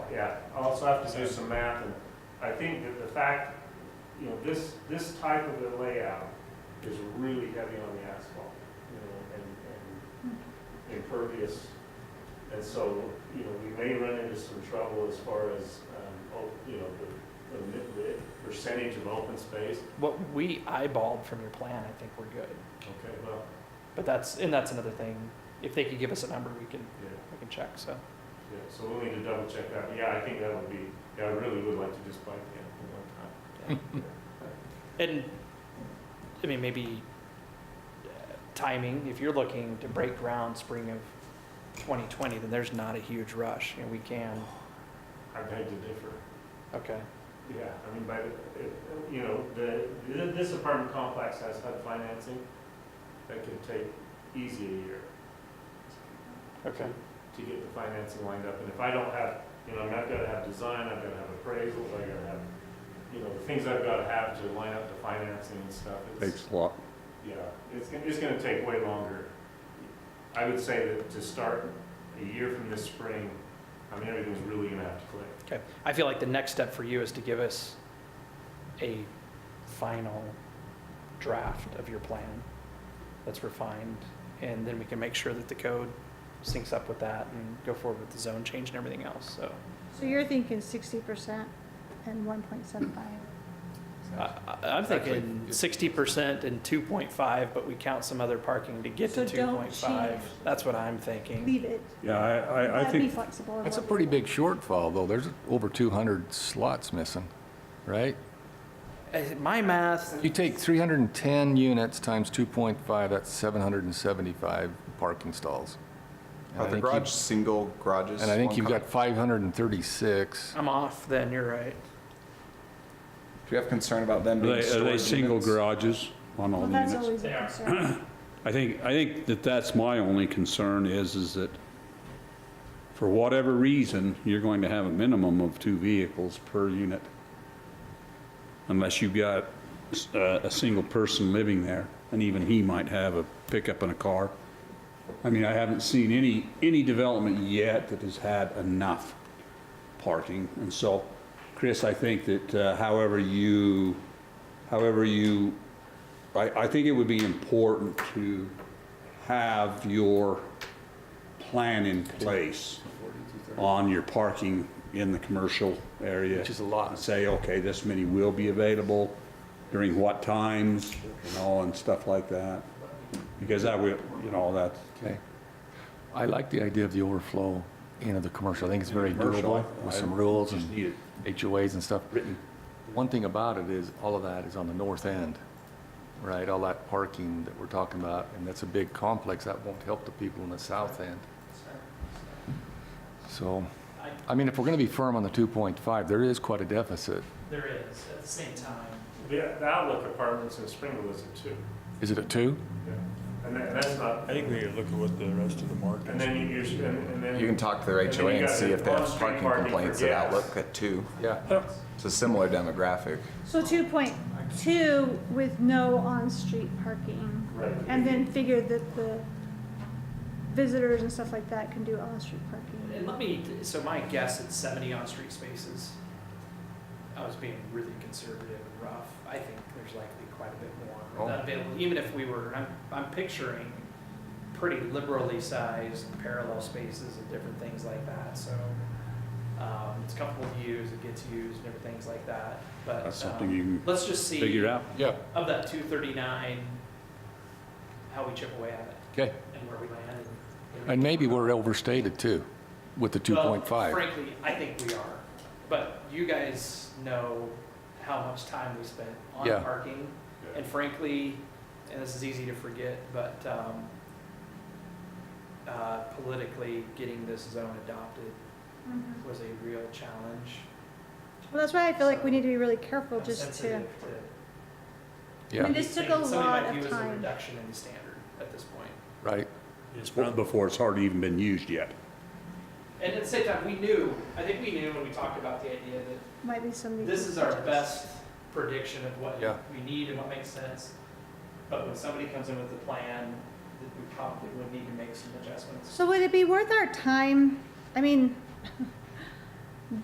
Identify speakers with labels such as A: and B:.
A: Yeah, I'll also have to do some math, and I think that the fact, you know, this, this type of a layout is really heavy on the asphalt, you know, and, and impervious. And so, you know, we may run into some trouble as far as, um, op- you know, the- the, mi- the percentage of open space.
B: What we eyeballed from your plan, I think we're good.
A: Okay, well,
B: But that's, and that's another thing, if they could give us a number, we can,
A: yeah.
B: we can check, so.
A: Yeah, so we'll need to double check that. Yeah, I think that would be, yeah, I really would like to just bike the animal one time.
B: Hmm. And, I mean, maybe uh, timing, if you're looking to break ground spring of 2020, then there's not a huge rush, and we can,
A: I beg to differ.
B: okay.
A: Yeah, I mean, by, the uh, you know, the, th- this apartment complex has HUD financing that could take easy a year
B: Okay.
A: to get the financing lined up. And if I don't have, you know, I mean, I've gotta have design, I've gotta have appraisals, I gotta have, you know, the things I've gotta have to line up the financing and stuff. It's-
C: Takes a lot.
A: Yeah, it's, gonna- it's gonna take way longer. I would say that to start a year from this spring, I mean, everything's really gonna have to click.
B: Okay. I feel like the next step for you is to give us a final draft of your plan that's refined, and then we can make sure that the code syncs up with that and go forward with the zone change and everything else, so.
D: So you're thinking sixty percent and one point seven five?
B: I- I- I'm thinking sixty percent and two point five, but we count some other parking to get to
D: So
B: two
D: don't
B: point five.
D: change.
B: That's what I'm thinking.
D: Leave it.
C: Yeah, I, I, I
D: That'd be
C: think,
D: flexible. of
C: that's a
D: what we
C: pretty
D: do.
C: big shortfall, though. There's over 200 slots missing, right?
B: Uh, My math,
C: You take 310 units times 2.5, that's 775 parking stalls. And I
E: Are the
C: think you-
E: garage single garages?
C: And I think
E: one
C: you've
E: car?
C: got 536.
B: I'm off then, you're right.
E: Do you have concern about them
F: Are
E: being
F: they, are they
E: storage
F: single
E: units?
F: garages on all
D: Well,
F: the
D: that's
F: units?
D: always a concern.
F: I think, I think that that's my only concern is, is that for whatever reason, you're going to have a minimum of two vehicles per unit. Unless you've got s- a, a single person living there, and even he might have a pickup and a car. I mean, I haven't seen any, any development yet that has had enough parking. And so, Chris, I think that uh, however you, however you I, I think it would be important to have your plan in place on your parking in the commercial area.
C: Which is a lot.
F: And Say, okay, this many will be available during what times, you know, and stuff like that. Because that will, you know, that's.
C: Okay. I like the idea of the overflow into the commercial. I think it's very
F: Commercial,
C: doable with some
F: I
C: rules
F: just
C: and
F: need it
C: HOAs and stuff.
F: Written.
C: One thing about it is, all of that is on the north end, right? All that parking that we're talking about, and that's a big complex, that won't help the people in the south end. So, I mean, if we're gonna be firm on the 2.5, there is quite a deficit.
B: There is, at the same time.
A: The the outlook apartments in Springville is a two.
C: Is it a two?
A: Yeah. And that, that's not,
G: I think we need to look at what the rest of the market.
A: and then you, you, and and then.
E: You can talk to their
A: And then you
E: HOA and
A: got
E: see
A: the
E: if they have
A: on-street
E: parking
A: parking
E: complaints
A: for
E: at
A: gas.
E: Outlook at two.
C: Yeah.
E: It's a similar demographic.
D: So two point two with no on-street parking.
A: Right.
D: And then figure that the visitors and stuff like that can do on-street
B: And
D: parking.
B: let me, so my guess at seventy on-street spaces, I was being really conservative and rough. I think there's likely quite a bit more
C: Oh.
B: not available, even if we were, I'm, I'm picturing pretty liberally sized parallel spaces and different things like that, so. Um, it's comfortable to use, it gets used and different things like that, but.
F: That's something
B: um,
F: you can
B: Let's just see.
F: Figure out.
C: Yeah,
B: Of that two thirty-nine, how we chip away at it
C: okay.
B: and where we land.
C: And maybe we're overstated too, with the
B: Well,
C: 2.5.
B: Frankly, I think we are, but you guys know how much time we spent on
C: Yeah.
B: parking. And frankly, and this is easy to forget, but um, uh, politically, getting this zone adopted
D: Mhm.
B: was a real challenge.
D: Well, that's why I feel like we need to be really careful
B: I'm
D: just to,
B: sensitive
D: I mean,
C: Yeah,
D: this took a
B: something
D: lot
B: might view
D: of
B: as a
D: time.
B: Reduction in the standard at this point.
C: right.
F: before it's hardly even been used yet.
B: And at the same time, we knew, I think we knew when we talked about the idea that
D: Might be some.
B: This is our best prediction of what
C: Yeah.
B: we need and what makes sense. But when somebody comes in with a plan, that we probably would need to make some adjustments.
D: So would it be worth our time? I mean,